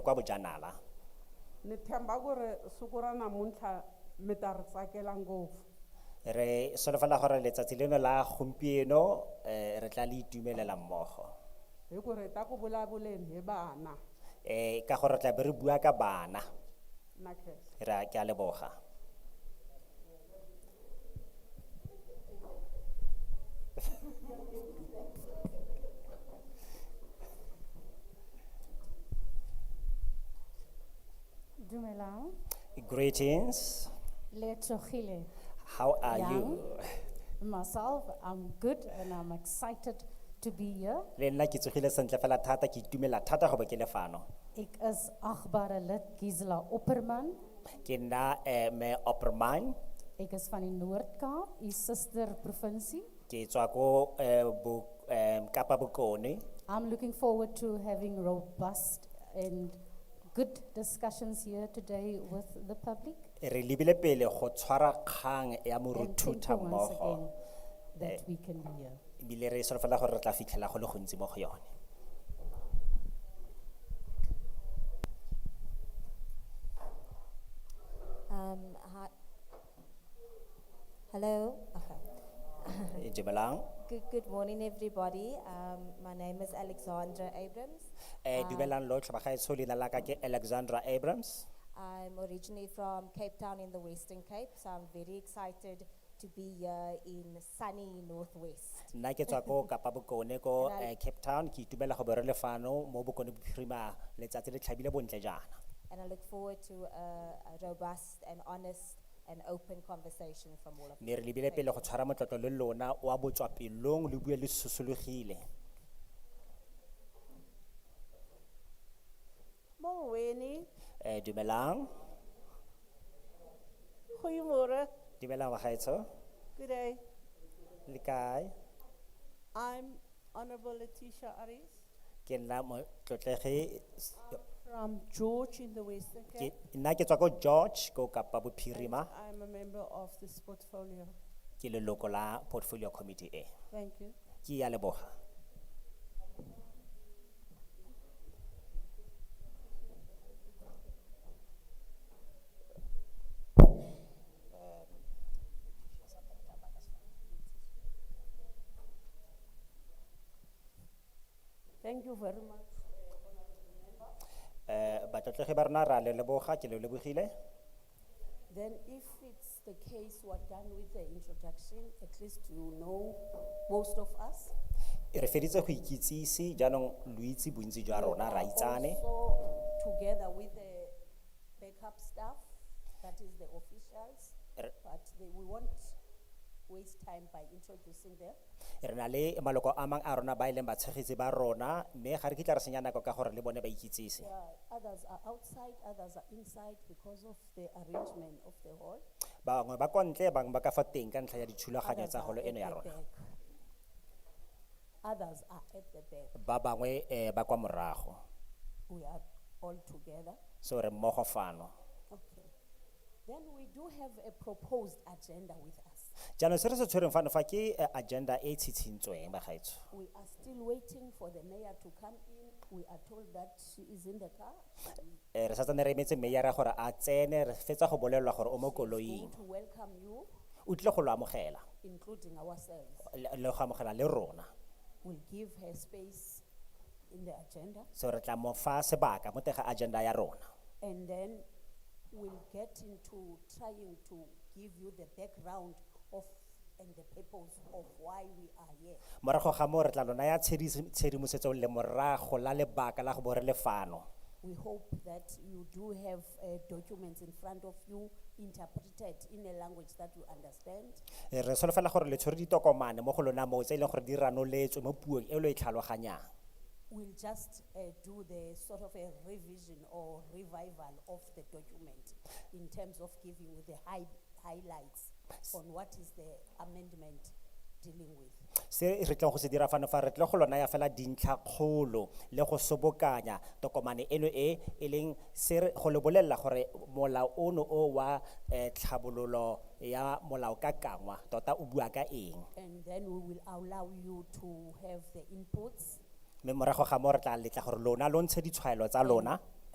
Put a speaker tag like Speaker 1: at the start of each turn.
Speaker 1: kwa bojanala
Speaker 2: ni tshemba ku ri siku ra namuntlha mi ta ri tsakela ngopfu
Speaker 1: re solofela gore letsatsi leno la gompieno eh, re tla le itumelela mmogo
Speaker 2: hi ku ri hi ta ku vulavuleni hi vana
Speaker 1: eh ka gore re tla be re bua ka bana
Speaker 2: na khehla
Speaker 1: re a- ke a leboga
Speaker 3: Dumelang,
Speaker 1: greetings
Speaker 3: le tshogile.
Speaker 1: how are
Speaker 3: Yeah.
Speaker 1: you
Speaker 3: Myself, I'm good and I'm excited to be here.
Speaker 1: le nna ke tsogile sentle fela thata ke itumela thata go ba ke le fano
Speaker 3: Ek is agbare lid Gisela Opperman.
Speaker 1: ke nna eh, me opperman
Speaker 3: Ek is van die Noord-Kaap, u suster provinsie.
Speaker 1: ke tswa ko eh, bo, eh, kapa bokone
Speaker 3: I'm looking forward to having robust and good discussions here today with the public.
Speaker 1: re lebile pele go tshwara kgang ya
Speaker 3: And thank you
Speaker 1: moruthuta
Speaker 3: once again
Speaker 1: mmogo
Speaker 3: that we can be here.
Speaker 1: ebile re solofela gore re tla fitlhela go le gontsi mo go yone
Speaker 4: Um, hi. Hello. Okay.
Speaker 1: Eh, dumelang
Speaker 4: Good, good morning, everybody. Um, my name is Alexandra Abrams.
Speaker 1: um dumelang lotlhe bagaetsho leina la ka ke alexandra abrams
Speaker 4: I'm originally from Cape Town in the Western Cape, so I'm very excited to be here in sunny Northwest.
Speaker 1: nna ke tswa ko kapa bokone ko
Speaker 4: Ra-
Speaker 1: eh, cape town ke itumela go bere lefano mo bokone bophirima letsatsi le tlhabile bontle jaana
Speaker 4: And I look forward to a, a robust and honest and open conversation from all of you.
Speaker 1: mme re lebile pele go tshwara motlotlo le lona wa botswapelong le bue le sosologile
Speaker 5: Molweni,
Speaker 1: um dumelang
Speaker 5: goeiemôre.
Speaker 1: dumelang bagaetsho
Speaker 5: Good day.
Speaker 1: le kae
Speaker 5: I'm Honorable Letitia Aris
Speaker 1: ke nna motlotlege s-
Speaker 5: from George in the Western Cape.
Speaker 1: ke- nna ke tswa ko george ko kapa
Speaker 5: and
Speaker 1: bophirima
Speaker 5: I'm a member of this portfolio.
Speaker 1: ke leloko la portfolio committee e
Speaker 5: Thank you.
Speaker 1: ke ya leboga
Speaker 5: Thank you very much.
Speaker 1: um batlotlege ba rona re a le leboga ke le lebogile
Speaker 6: Then if it's the case, we're done with the introduction, at least you know most of us.
Speaker 1: re feditse go ikitsise jaanong lo itse bontsi jwa rona ra itsane
Speaker 6: Also, together with the backup staff, that is the officials,
Speaker 1: Er-
Speaker 6: but they, we won't waste time by introducing them.
Speaker 1: re na le maloko a mangwe a rona ba e leng batshegetse ba rona mme ga re kitla re senya nako ka gore le bone ba ikitsise
Speaker 6: There are- uh, Others are outside, others are inside because of the arrangement of the hall.
Speaker 1: bangwe ba kwa ntle bangwe ba ka fa teng ka ntlha ya dithulaganyo
Speaker 6: Others
Speaker 1: tsa
Speaker 6: are
Speaker 1: golo
Speaker 6: at
Speaker 1: eno ya
Speaker 6: the
Speaker 1: rona
Speaker 6: back. Others are at the back.
Speaker 1: ba bangwe um ba kwa morago
Speaker 6: We are all together.
Speaker 1: so re mmogo fano
Speaker 6: Okay. Then we do have a proposed agenda with us.
Speaker 1: jaanong se re se tshwereng fano fa ke eh, agenda e e tshitshintsweng bagaetsho
Speaker 6: We are still waiting for the mayor to come in. We are told that she is in the car.
Speaker 1: Eh, re sa tsane re emetse meyara gore a tsene re fetsa go bolelelwa gore o mo
Speaker 6: Going
Speaker 1: koloing
Speaker 6: to welcome you,
Speaker 1: o tlile go lo amogela
Speaker 6: including ourselves.
Speaker 1: le le go amogela le rona
Speaker 6: We'll give her space in the agenda.
Speaker 1: so re tla mo fa sebaka mo teng ga agenda ya rona
Speaker 6: And then we'll get into trying to give you the background of and the purpose of why we are here.
Speaker 1: morago ga moo re tla lona ya tshedimosetso le morago la lebaka la go bore lefano
Speaker 6: We hope that you do have uh, documents in front of you interpreted in a language that you understand.
Speaker 1: Eh, re solofela gore le tshwere ditokomane mo go lona moo tse e leng gore di ranoletswe mo puong e lo e tlhaloganyang
Speaker 6: We'll just uh, do the sort of a revision or revival of the document in terms of giving you the high, highlights on what is the amendment dealing with.
Speaker 1: se re tlo go se dira fano fa re tlo go lona ya fela dintlhakgolo le go sobokanya tokomane eno e e leng se re- go le bolelela gore molao ono o wa eh, tlhabololo ya molao ka kangwa tota o bua ka eng
Speaker 6: And then we will allow you to have the inputs
Speaker 1: mme morago ga moo re tla letla gore lona lo ntshe ditshwaelo tsa lona